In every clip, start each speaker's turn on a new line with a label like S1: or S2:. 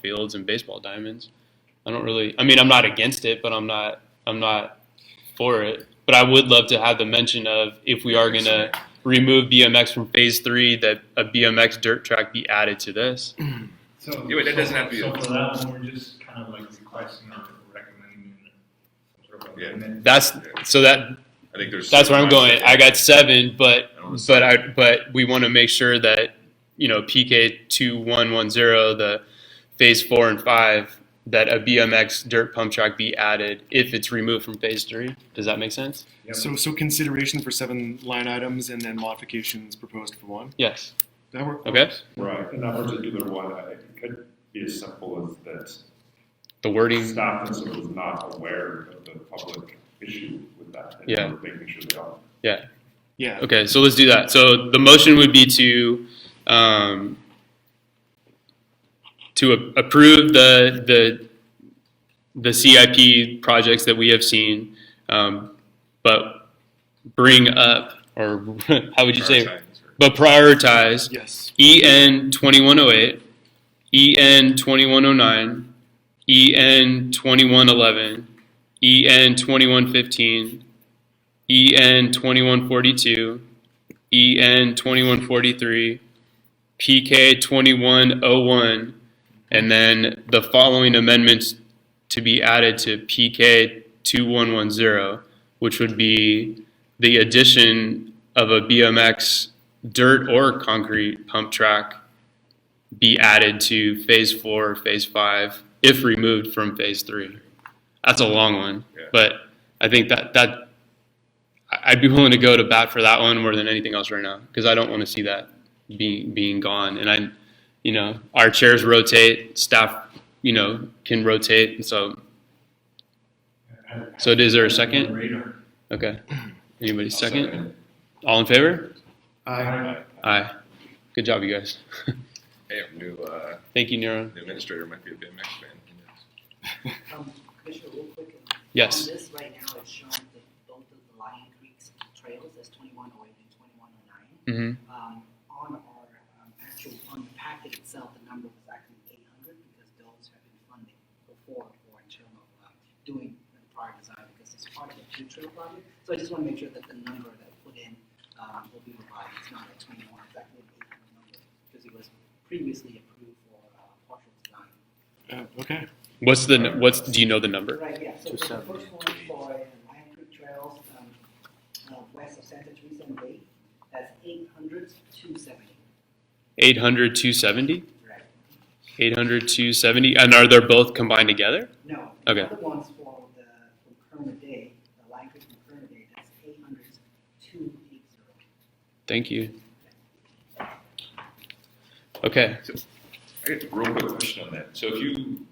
S1: fields and baseball diamonds. I don't really. I mean, I'm not against it, but I'm not. I'm not for it. But I would love to have the mention of if we are gonna remove BMX from phase three, that a BMX dirt track be added to this.
S2: So.
S3: Yeah, but that doesn't have to be-
S2: So for that one, we're just kind of like requesting or recommending. sort of
S3: Yeah.
S2: amendment.
S1: That's so that
S3: I think there's.
S1: that's where I'm going. I got seven, but
S3: I don't wanna
S1: but I but we want to make sure that you know PK two one one zero the phase four and five that a BMX dirt pump track be added if it's removed from phase three. Does that make sense?
S2: Yep.
S4: So, so consideration for seven line items and then modifications proposed for one.
S1: Yes.
S4: That work?
S1: Okay.
S5: Right, and that particular one, I think, could be as simple as
S1: The
S5: that
S1: wording.
S5: staff and so was not aware of the public issue with that. and
S1: Yeah.
S5: Making sure they all.
S1: Yeah.
S4: Yeah.
S1: Okay. So let's do that. So the motion would be to um, to a- approve the the the CIP projects that we have seen, um, but bring up or how would you say? But prioritize
S4: Yes.
S1: E EN 2108, EN 2109, E EN 2111, EN 2115, EN 2142, EN 2143, PK 2101, and then the following amendments to be added to PK 2110, which would be the addition of a BMX dirt or concrete pump track be added to phase four, phase five, if removed from phase three. That's a long one,
S3: Yeah.
S1: but I think that that I- I'd be willing to go to bat for that one more than anything else right now because I don't want to see that being being gone. And I, you know, our chairs rotate, staff, you know, can rotate, and so So is there a second?
S2: Radar.
S1: okay. Anybody second?
S3: Second.
S1: All in favor?
S2: I,
S1: Aye. Good job, you guys.
S3: Hey, our new, uh,
S1: Thank you, Nero.
S3: new administrator might be a BMX fan. who knows?
S6: Um, Commissioner, real quick.
S1: Yes.
S6: On this right now, it's showing that both of the Lion Creek's trails, that's twenty-one oh eight and twenty-one oh nine.
S1: Mm-hmm.
S6: Um, on our, um, actual, on the packet itself, the number was actually eight hundred because those have been funded before for in terms of, uh, doing the prior design because it's part of the two trail project. So I just wanna make sure that the number that put in, um, will be revised, it's not at twenty-one, it's actually an eight hundred number. Because it was previously approved for, uh, partial design.
S4: Uh, okay.
S1: What's the nu- what's do you know the number?
S6: Right, yeah, so for the first one for uh, Lion Creek Trails, um, uh, west of Santa Teresa and Bay, that's eight hundred two seventy.
S1: 800 270?
S6: Right.
S1: 800 270 and are they both combined together?
S6: No.
S1: Okay.
S6: The other ones for the, from Kermit Day, the Lion Creek from Kermit Day, that's eight hundred two eight zero.
S1: Thank you. Okay.
S3: I got a real quick question on that. So if you,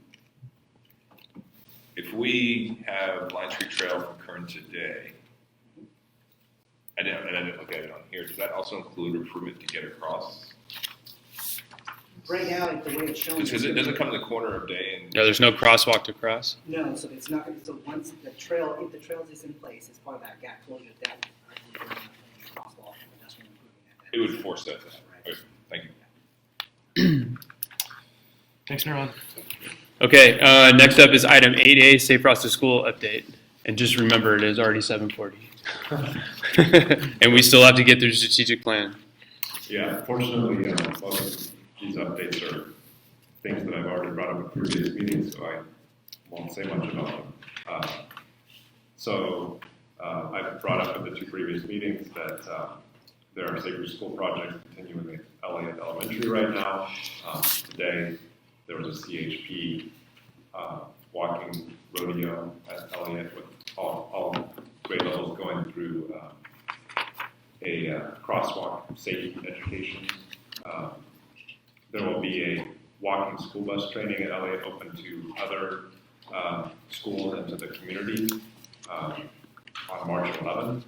S3: if we have Lion Tree Trail from Kern today, I didn't, and I didn't look at it on here, does that also include improvement to get across?
S6: Right now, like the way it's shown.
S3: Because it doesn't come to the corner of day and.
S1: No, there's no crosswalk to cross.
S6: No, so it's not, gonna so once the trail, if the trails is in place, it's part of that gap closure, that, uh, crosswalk, that's when
S3: It
S6: we're improving
S3: would force that to happen.
S6: Right.
S3: Okay, Thank you.
S4: Thanks, Neuron.
S1: Okay, uh, next up is item 8A Safe Routes to School update. And just remember, it is already 740. and we still have to get through strategic plan.
S5: Yeah, fortunately, uh, most of these updates are things that I've already brought up in previous meetings, so I won't say much about them. Uh, So, uh, I've brought up at the two previous meetings that, uh, there are sacred school projects continuing at Elliott Elementary right now. Um, today, there was a CHP, uh, walking rodeo at Elliott with all, all grade levels going through, uh, a uh, crosswalk safety education. Um, There will be a walking school bus training at LA open to other uh, schools and to the community um, on March 11th.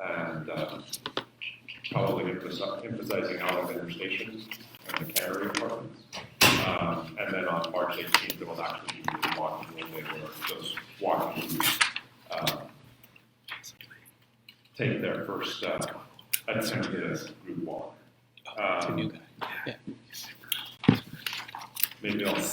S5: And uh, probably emphasis- emphasizing Alexander Station and the Cannery Apartments. Um, And then on March 18th, there will actually be a walking relay where those walking uh, take their first uh, attempt at a group walk.
S1: It's a new
S5: Um,
S1: guy.
S5: Maybe I'll